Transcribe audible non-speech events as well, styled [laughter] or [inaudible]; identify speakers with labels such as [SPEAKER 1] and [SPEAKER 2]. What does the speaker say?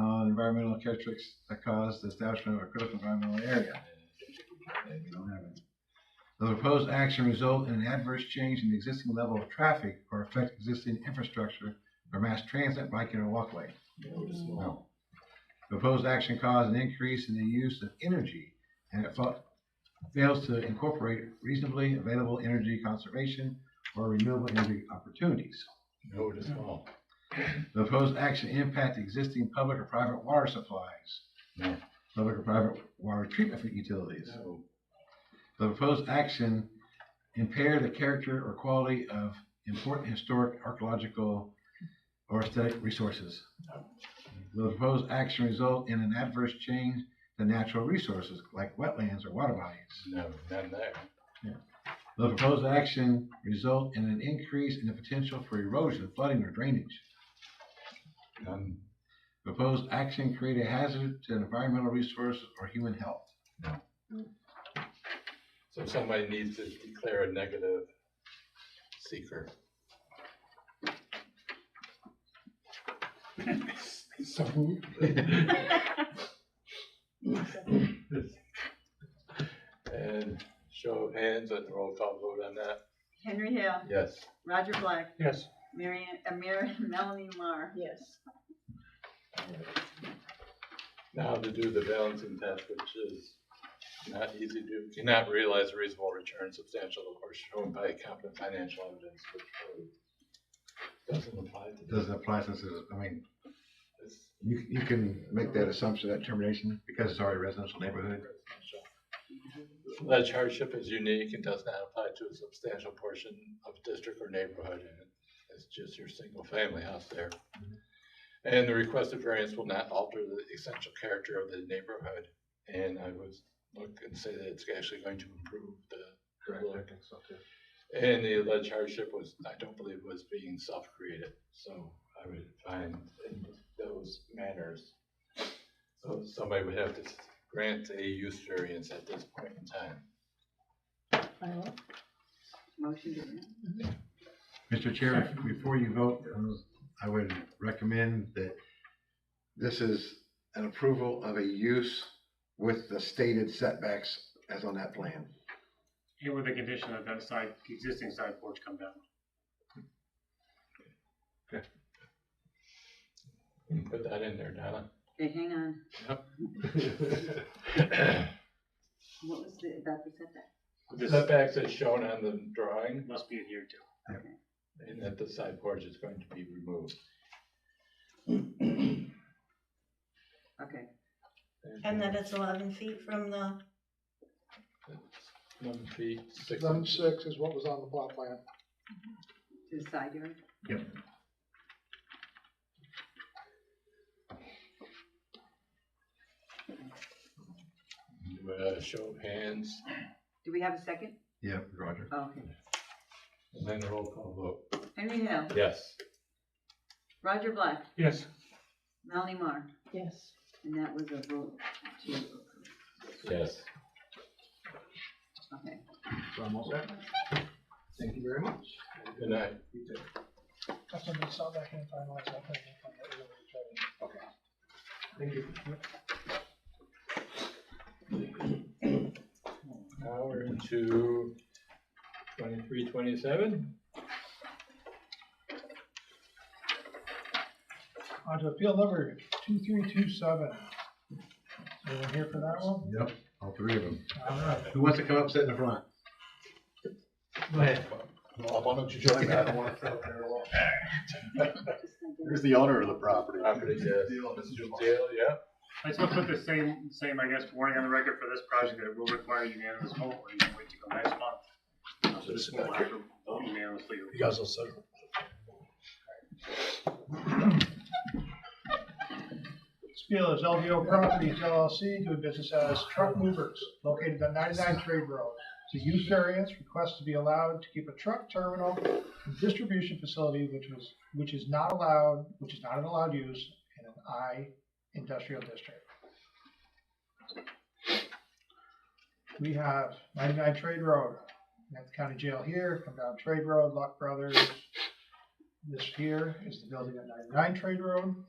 [SPEAKER 1] uh, environmental characteristics that cause the establishment of a critical environmental area. Okay, we don't have any. The proposed action result in an adverse change in the existing level of traffic or affect existing infrastructure or mass transit, biking, or walkway. No. The Proposed action caused an increase in the use of energy and it fa- fails to incorporate reasonably available energy conservation or renewable energy opportunities.
[SPEAKER 2] Noted as well.
[SPEAKER 1] The proposed action impact existing public or private water supplies.
[SPEAKER 2] No.
[SPEAKER 1] Public or private water treatment utilities.
[SPEAKER 2] No.
[SPEAKER 1] The proposed action impair the character or quality of important historic, archaeological, or aesthetic resources. The proposed action result in an adverse change to natural resources like wetlands or water bodies.
[SPEAKER 2] No, none there.
[SPEAKER 1] The proposed action result in an increase in the potential for erosion, flooding, or drainage.
[SPEAKER 2] None.
[SPEAKER 1] Proposed action create a hazard to environmental resource or human health.
[SPEAKER 2] So somebody needs to declare a negative seeker. So [laughs] And show of hands and roll call vote on that.
[SPEAKER 3] Henry Hale,
[SPEAKER 2] Yes.
[SPEAKER 3] Roger Black,
[SPEAKER 2] Yes.
[SPEAKER 3] Mary, Ann- uh, Mary, [laughs] Melanie Marr.
[SPEAKER 4] Yes.
[SPEAKER 2] Now to do the balancing test, which is not easy to do, cannot realize a reasonable return substantial or shown by competent financial evidence, which really doesn't apply to this.
[SPEAKER 1] Doesn't apply since it's, I mean,
[SPEAKER 2] It's
[SPEAKER 1] you, you can make that assumption, that termination, because it's already a residential neighborhood.
[SPEAKER 2] residential. Alleged hardship is unique and does not apply to a substantial portion of district or neighborhood, and it's just your single family house there. And the requested variance will not alter the essential character of the neighborhood, and I would look and say that it's actually going to improve the Correct, I
[SPEAKER 1] think so too.
[SPEAKER 2] And the alleged hardship was, I don't believe was being self-created, so I would find in those manners. So somebody would have to grant a use variance at this point in time.
[SPEAKER 3] Motion to adjourn.
[SPEAKER 1] Mr. Chair, if- before you vote, um, I would recommend that this is an approval of a use with the stated setbacks as on that plan.
[SPEAKER 5] And with the condition that that side, existing side porch come down.
[SPEAKER 2] Put that in there, Donna.
[SPEAKER 3] Hey, hang on, [coughs] what was the, about the setback?
[SPEAKER 2] The
[SPEAKER 5] This
[SPEAKER 2] setbacks as shown on the drawing,
[SPEAKER 5] must be adhered to.
[SPEAKER 2] and that the side porch is going to be removed.
[SPEAKER 3] Okay,
[SPEAKER 4] And that it's eleven feet from the,
[SPEAKER 2] Eleven feet, six
[SPEAKER 6] Eleven
[SPEAKER 2] inches.
[SPEAKER 6] six is what was on the plot plan.
[SPEAKER 3] to the side yard,
[SPEAKER 2] Do a show of hands,
[SPEAKER 3] do we have a second?
[SPEAKER 1] Yeah, Roger.
[SPEAKER 3] Oh, Okay,
[SPEAKER 2] and then a roll call
[SPEAKER 3] Henry Hale,
[SPEAKER 2] vote. Yes.
[SPEAKER 3] Roger Black,
[SPEAKER 5] Yes.
[SPEAKER 3] Melanie Marr,
[SPEAKER 4] yes.
[SPEAKER 3] and that was a vote to, okay.
[SPEAKER 2] Yes.
[SPEAKER 1] So I'm all set. Thank you very much.
[SPEAKER 2] Good night.
[SPEAKER 6] That's when they saw that hand finalized, I think. Okay.
[SPEAKER 1] Thank you.
[SPEAKER 2] [clears throat] Now we're into twenty-three, twenty-seven.
[SPEAKER 6] On to appeal number two three two seven. Anyone here for that one?
[SPEAKER 1] Yep, all three of them.
[SPEAKER 6] All right.
[SPEAKER 1] Who wants to come up, sit in the front?
[SPEAKER 2] Go ahead.
[SPEAKER 7] Why don't you join me? I don't want to sit up there alone. Here's the owner of the property.
[SPEAKER 2] Property, yes.
[SPEAKER 7] Deal, this is
[SPEAKER 2] Mr.
[SPEAKER 7] your lot.
[SPEAKER 2] Dale, yeah?
[SPEAKER 5] I just want to put the same, same, I guess, warning on the record for this project that it will require unanimous vote, or you can wait till next month. So this will have to vote unanimously.
[SPEAKER 7] You guys will settle.
[SPEAKER 6] This appeal is LVO Properties LLC doing business as Truck Movers located on ninety-nine Trade Road. It's a use variance request to be allowed to keep a truck terminal and distribution facility which was, which is not allowed, which is not an allowed use in an I industrial district. We have ninety-nine Trade Road, at the county jail here, come down Trade Road, Luck Brothers. This here is the building at ninety-nine Trade Road.